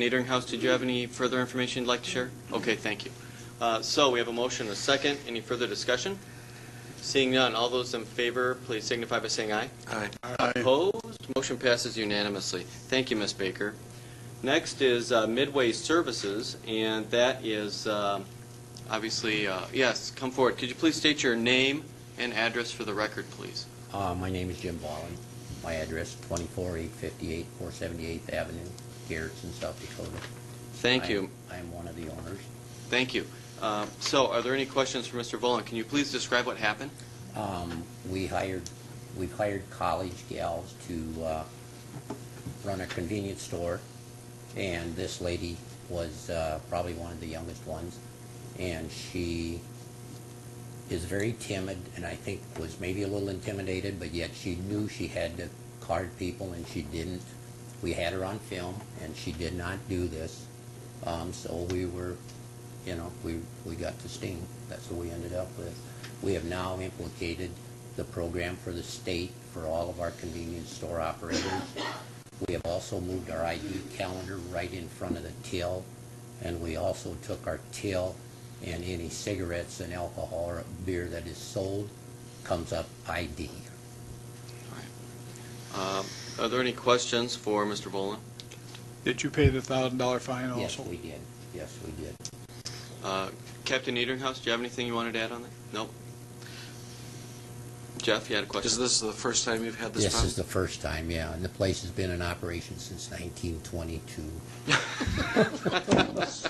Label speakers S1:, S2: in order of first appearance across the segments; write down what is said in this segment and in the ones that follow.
S1: Nadering House, did you have any further information you'd like to share? Okay, thank you. Uh, So we have a motion, and a second. Any further discussion? Seeing none, all those in favor, please signify by saying aye.
S2: Aye.
S1: Opposed? Motion passes unanimously. Thank you, Ms. Baker. Next is uh, Midway Services, and that is, um, obviously, uh, yes, come forward. Could you please state your name and address for the record, please?
S3: Uh, my name is Jim Balling. My address, 24858 478th Avenue, Garrettson, South Dakota.
S1: Thank
S3: I-
S1: you.
S3: I am one of the owners.
S1: Thank you. Uh, So are there any questions for Mr. Volin? Can you please describe what happened?
S3: Um, we hired, we've hired college gals to, uh, run a convenience store, and this lady was, uh, probably one of the youngest ones, and she is very timid, and I think was maybe a little intimidated, but yet she knew she had to card people, and she didn't. We had her on film, and she did not do this, um, so we were, you know, we, we got the sting. That's what we ended up with. We have now implicated the program for the state for all of our convenience store operators. We have also moved our ID calendar right in front of the till, and we also took our till and any cigarettes and alcohol or beer that is sold comes up ID.
S1: Uh, Are there any questions for Mr. Volin?
S4: Did you pay the thousand dollar fine
S3: Yes,
S4: also?
S3: we did. Yes, we did.
S1: Uh, Captain Eateringhouse, do you have anything you wanted to add on that? No. Jeff, you had a
S2: Is
S1: question?
S2: this the first time you've had this
S3: This
S2: problem?
S3: is the first time, yeah, and the place has been in operation since 1922.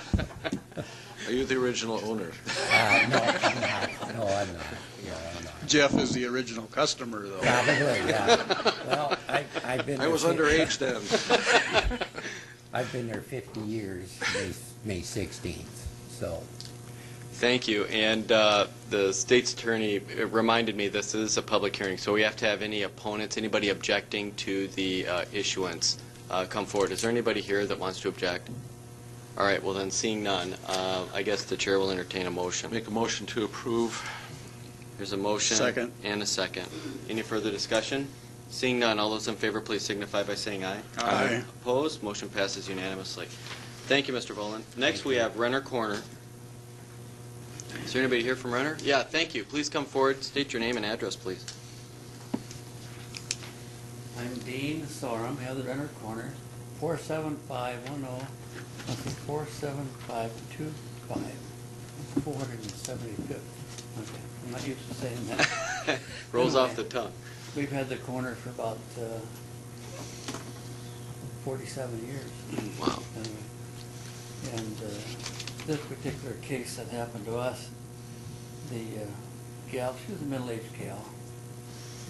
S2: Are you the original owner?
S3: Uh, No, I'm not. No, I'm not. Yeah, I'm not.
S4: Jeff is the original customer, though.
S3: Probably, yeah. Well, I- I've been.
S2: I
S3: there
S2: was
S3: fif-
S2: underage then.
S3: I've been there 50 years, May- May 16th, so.
S1: Thank you. And uh, the state's attorney uh, reminded me this is a public hearing, so we have to have any opponents, anybody objecting to the uh, issuance, uh, come forward. Is there anybody here that wants to object? All right, well then, seeing none, uh, I guess the chair will entertain a motion.
S2: Make a motion to approve.
S1: There's a motion.
S4: Second.
S1: And a second. Any further discussion? Seeing none, all those in favor, please signify by saying aye.
S4: Aye.
S1: Opposed, motion passes unanimously. Thank you, Mr. Boland. Next, we have Renner Corner. Is there anybody here from Renner? Yeah, thank you. Please come forward, state your name and address, please.
S5: I'm Dean Sorum, head of the Renner Corner, four seven five one oh, four seven five two five, four hundred and seventy-fifth. Okay, I'm not used to saying that.
S1: Rolls off the tongue.
S5: We've had the corner for about, uh, forty-seven years.
S1: Wow.
S5: Anyway, And, uh, this particular case that happened to us, the, uh, gal, she was a middle-aged gal,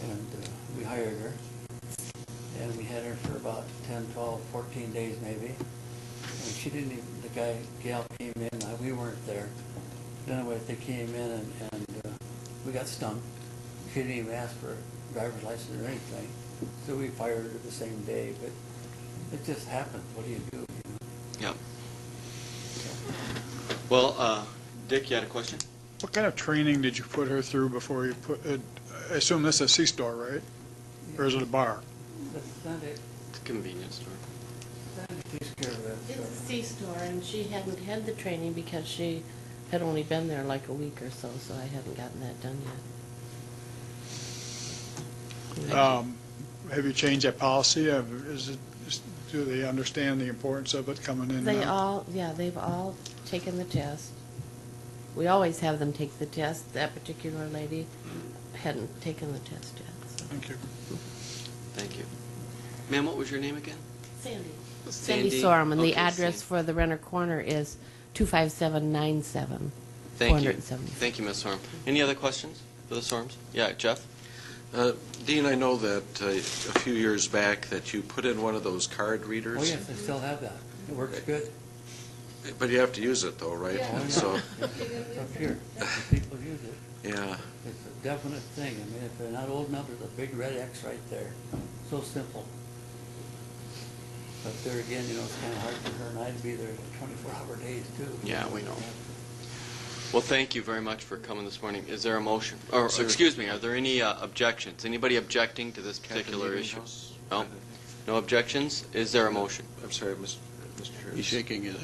S5: and, uh, we hired her. And we had her for about 10, 12, 14 days maybe. And she didn't even, the guy, gal came in, uh, we weren't there. Then when they came in and, and uh, we got stung. She didn't even ask for a driver's license or anything. So we fired her the same day, but it just happens. What do you do? you know?
S1: Yep. Well, uh, Dick, you had a question?
S4: What kind of training did you put her through before you put, uh, I assume this is a C-store, right? Or is it a bar?
S5: That's not it.
S1: It's a convenience store.
S5: That takes care of that.
S6: It's
S5: so.
S6: a C-store, and she hadn't had the training because she had only been there like a week or so, so I haven't gotten that done yet.
S4: Um, Have you changed that policy? Uh, Is it, is- do they understand the importance of it coming in? and
S6: They
S4: out?
S6: all, yeah, they've all taken the test. We always have them take the test. That particular lady hadn't taken the test yet, so.
S4: Thank you.
S1: Thank you. Ma'am, what was your name again?
S6: Sandy.
S1: Sandy.
S6: Sandy Sorman,
S1: Okay,
S6: the address
S1: Sandy.
S6: for the Renner Corner is 25797.
S1: Thank you.
S6: 470.
S1: Thank you, Ms. Sorm. Any other questions for the Sorms? Yeah, Jeff?
S2: Uh, Dean, I know that uh, a few years back that you put in one of those card readers.
S5: Oh, yes, I still have that. It works good.
S2: But you have to use it though, right?
S5: Oh, yeah.
S2: So,
S5: It's up here. People use it.
S2: yeah.
S5: It's a definite thing. I mean, if they're not old enough, there's a big red X right there. So simple. But there again, you know, it's kind of hard for her and I to be there twenty-four hour days too.
S1: Yeah, we know. Well, thank you very much for coming this morning. Is there a motion? Or,
S2: Sir.
S1: excuse me, are there any uh, objections? Anybody objecting to this
S2: Captain
S1: particular issue?
S2: Evenhouse?
S1: No. No objections? Is there a motion?
S2: I'm sorry, Mr.
S7: Mr. Chair.
S2: He's shaking his